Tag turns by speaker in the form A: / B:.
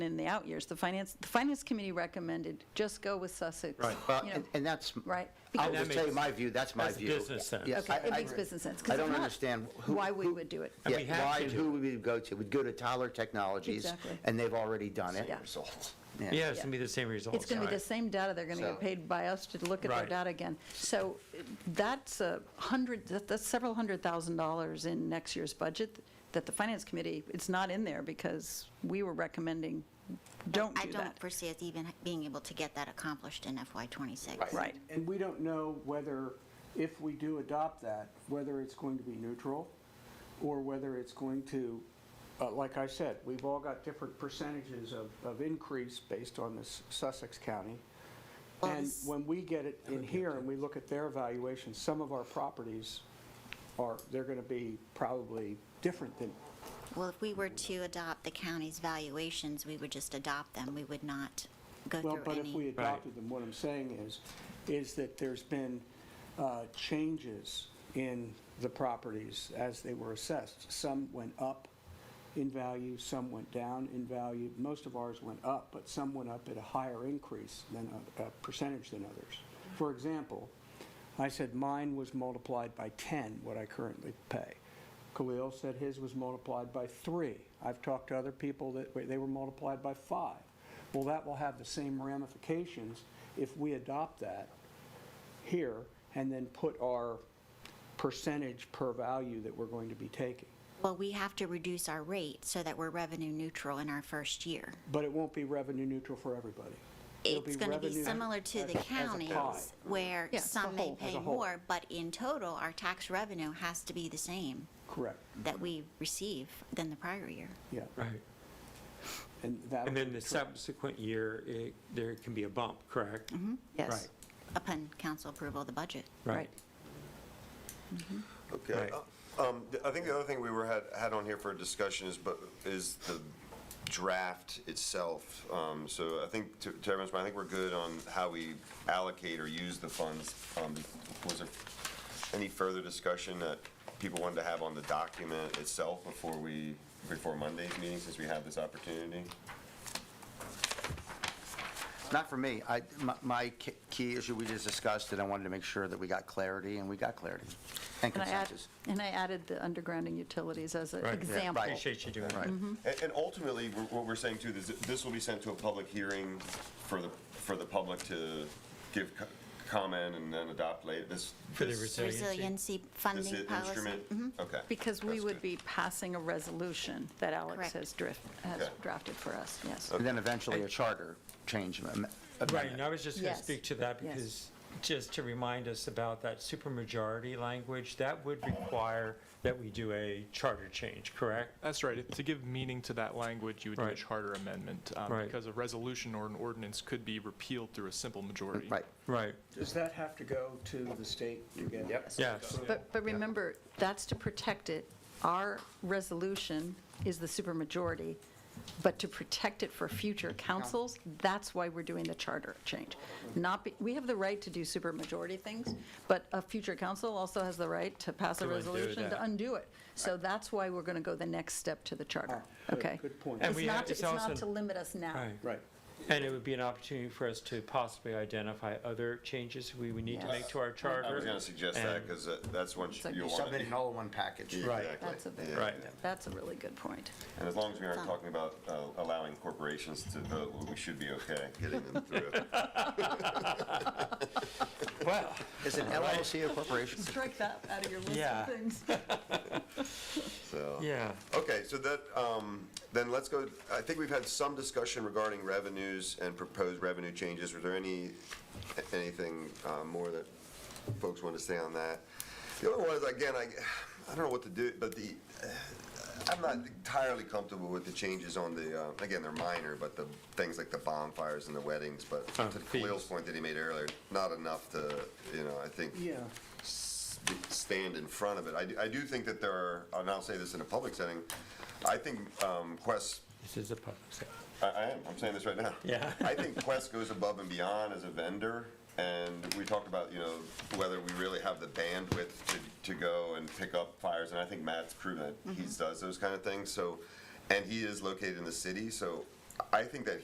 A: in the out years, the finance, the finance committee recommended, just go with Sussex.
B: Right.
A: you
C: Well,
A: know,
C: and- and that's,
A: Right.
C: I'll
A: Because-
C: just tell you my view, that's my
B: That's
C: view.
B: business sense.
C: Yeah,
A: Okay,
C: I-
A: it
C: I-
A: makes business sense. 'cause
C: I
A: if
C: don't
A: not,
C: understand who.
A: Why we
C: who-
A: would do it.
B: And we
C: Yeah,
B: have
C: why,
B: to
C: and
B: do
C: who would we go to? We'd go to Tyler Technologies.
A: Exactly.
C: And they've already done it.
A: Yeah.
C: Yeah.
B: Yeah, it's gonna be the same results.
A: It's going to be
B: right.
A: the same data. They're going to
C: So-
A: get paid by us to look at their
B: Right.
A: data again. So that's a hundred, that- that's several hundred thousand dollars in next year's budget that the finance committee, it's not in there because we were recommending, don't
D: I
A: do
D: don't
A: that.
D: foresee us even being able to get that accomplished in FY '26.
A: Right.
E: And we don't know whether, if we do adopt that, whether it's going to be neutral or whether it's going to, uh, like I said, we've all got different percentages of, of increase based on this Sussex County.
D: Well,
E: And
D: this-
E: when we get it in here and we look at their evaluation, some of our properties are, they're going to be probably different than,
D: Well, if we were to adopt the county's valuations, we would just adopt them. We would not go
E: Well,
D: through
E: but if we
D: any.
E: adopted them, what I'm saying is, is that there's been uh, changes in the properties as they were assessed. Some went up in value, some went down in value. Most of ours went up, but some went up at a higher increase than, a a percentage than others. For example, I said mine was multiplied by 10, what I currently pay. Khalil said his was multiplied by 3. I've talked to other people that, were- they were multiplied by 5. Well, that will have the same ramifications if we adopt that here and then put our percentage per value that we're going to be taking.
D: Well, we have to reduce our rate so that we're revenue neutral in our first year.
E: But it won't be revenue neutral for everybody. It'll
D: It's going to be
E: revenue
D: similar to
E: as-
D: the
E: as a pie.
D: counties where
A: Yeah, as a
D: some may
A: whole.
D: pay
E: As a whole.
D: more, but in total, our tax revenue has to be the same
E: Correct,
D: that we receive than the prior year.
E: yeah.
B: Right.
E: And that.
B: And then the subsequent year, it, there can be a bump, correct?
A: Mm-hmm. Yes.
D: Upon council approval of the budget.
B: Right.
F: Okay.
B: Right.
F: Uh, um, th- I think the other thing we were, had, had on here for discussion is, but, is the draft itself. Um, So I think, to to everyone's point, I think we're good on how we allocate or use the funds. Um, Was there any further discussion that people wanted to have on the document itself before we, before Monday's meeting, since we have this opportunity?
C: Not for me. I, my, my ki- key issue we just discussed, and I wanted to make sure that we got clarity, and we got clarity and
A: And I add-
C: consensus.
A: And I added the undergrounding utilities as an
B: Right. Yeah,
A: example.
C: right.
B: Appreciate you doing
C: Right.
B: that.
A: Mm-hmm.
F: And and ultimately, we're- what we're saying too, is that this will be sent to a public hearing for the, for the public to give co- comment and then adopt later, this.
B: For the
F: this-
D: Resiliency
F: This
D: funding
F: i-
D: policy.
F: instrument? Okay.
A: Mm-hmm. Because we
F: that's
A: would
F: good.
A: be passing a resolution that Alex
D: Correct.
A: has drift, has
F: Okay.
A: drafted for us, yes.
C: And then eventually a charter change am-
B: Right,
C: amendment.
B: and I was just going to
A: Yes.
B: speak to that
A: Yes.
B: because, just to remind us about that supermajority language, that would require that we do a charter change, correct?
G: That's right. If- To give meaning to that language, you would need a
B: Right.
G: charter amendment. um,
B: Right.
G: Because a resolution or an ordinance could be repealed through a simple majority.
C: Right.
B: Right,
E: Does that have to go to the state to get? Yep.
B: yes,
A: But, but remember, that's to protect it. Our resolution is the supermajority, but to protect it for future councils, that's why we're doing the charter change. Not, be- we have the right to do supermajority things, but a future council also has the right to pass a
B: To undo
A: resolution
B: that.
A: to undo it. So that's why we're going to go the next step to the charter,
E: good-
A: okay?
E: good point.
B: And
A: It's
B: we
A: not,
B: have-
A: to-
B: it's
A: it's not
B: also-
A: to limit us now.
B: right.
E: Right.
B: And it would be an opportunity for us to possibly identify other changes we would need to make to our charter.
F: I was going to suggest that,
B: and-
F: because that's one
A: like
F: you'll want.
C: Submit it all in one package.
B: Right.
A: That's a, very-
B: Right.
A: that's a really good point.
F: And as long as we aren't talking about uh, allowing corporations to vote, we should be okay getting them through.
B: Well,
C: Is an LLC a corporation?
A: Strike that out of your list
B: Yeah.
A: of things.
F: So.
B: yeah.
F: Okay, so that, um, then let's go, I think we've had some discussion regarding revenues and proposed revenue changes. Were there any, anything uh, more that folks want to say on that? The other one is, again, I, I don't know what to do, but the, uh, I'm not entirely comfortable with the changes on the, uh, again, they're minor, but the things like the bonfires and the weddings, but
B: Oh,
F: to Khalil's
B: fees.
F: point that he made earlier, not enough to, you know, I think
E: Yeah.
F: st- stand in front of it. I do, I do think that there are, and I'll say this in a public setting, I think um, Quest,
B: This is a public session.
F: I, I am, I'm saying this right now.
B: Yeah.
F: I think Quest goes above and beyond as a vendor, and we talked about, you know, whether we really have the bandwidth to, to go and pick up fires, and I think Matt's proven that he does those kind of things, so, and he is located in the city, so I think that